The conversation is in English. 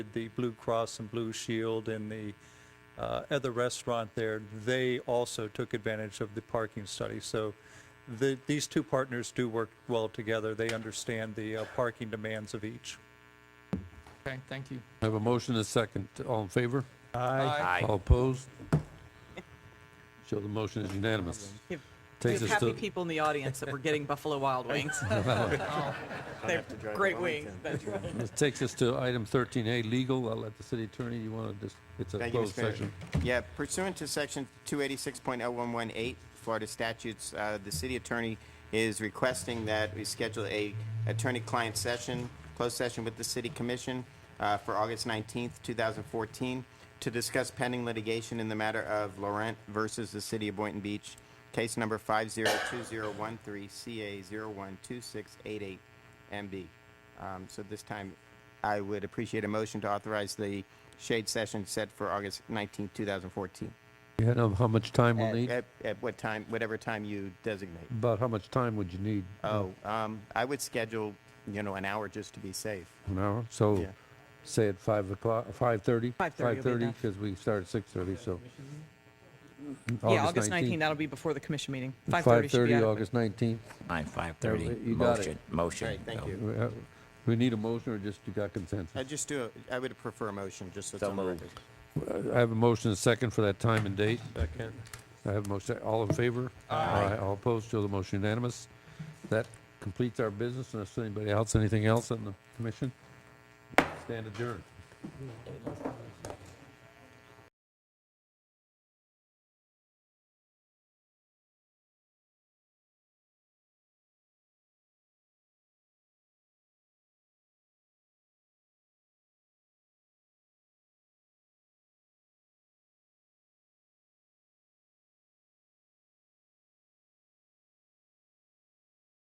the Blue Cross and Blue Shield and the uh, other restaurant there, they also took advantage of the parking study. So the, these two partners do work well together. They understand the uh, parking demands of each. Okay, thank you. I have a motion and a second. All in favor? Aye. All opposed? Show the motion is unanimous. Give- We Takes have us happy to, people in the audience that were getting Buffalo Wild Wings. They're great wings. That's right. this takes us to item 13A, legal. I'll let the city attorney, you want to just, it's a Thank you, closed Mr. Mayor. session. Yeah, pursuant to section two eighty-six point oh one one eight Florida statutes, uh, the city attorney is requesting that we schedule a attorney-client session, closed session with the city commission, uh, for August nineteenth, two thousand fourteen, to discuss pending litigation in the matter of Laurent versus the city of Boynton Beach, case number five zero two zero one three CA zero one two six eight eight MB. Um, so this time, I would appreciate a motion to authorize the shade session set for August 19, 2014. You had, um, how much time we'll At- need? At, at what time, whatever time you designate. About how much time would you need? Oh, um, I would schedule, you know, an hour just to be safe. An hour? So Yeah. say at 5 o'clock, 5:30? 5:30 will be enough. because we start at 6:30, so. Yeah, August 19th, that'll be before the commission meeting. 5:30 should be 5:30, adequate. August 19th. Nine, five thirty. You got it. Motion, motion. All right, thank No. you. We have- We need a motion or just you got consensus? I just do, a- I would prefer a motion, just so it's So on the moved. record. I have a motion and a second for that time and date. Second. I have a motion, all in favor? Aye. All opposed, show the motion unanimous. That completes our business, unless anybody else, anything else on the commission? Stand adjourned.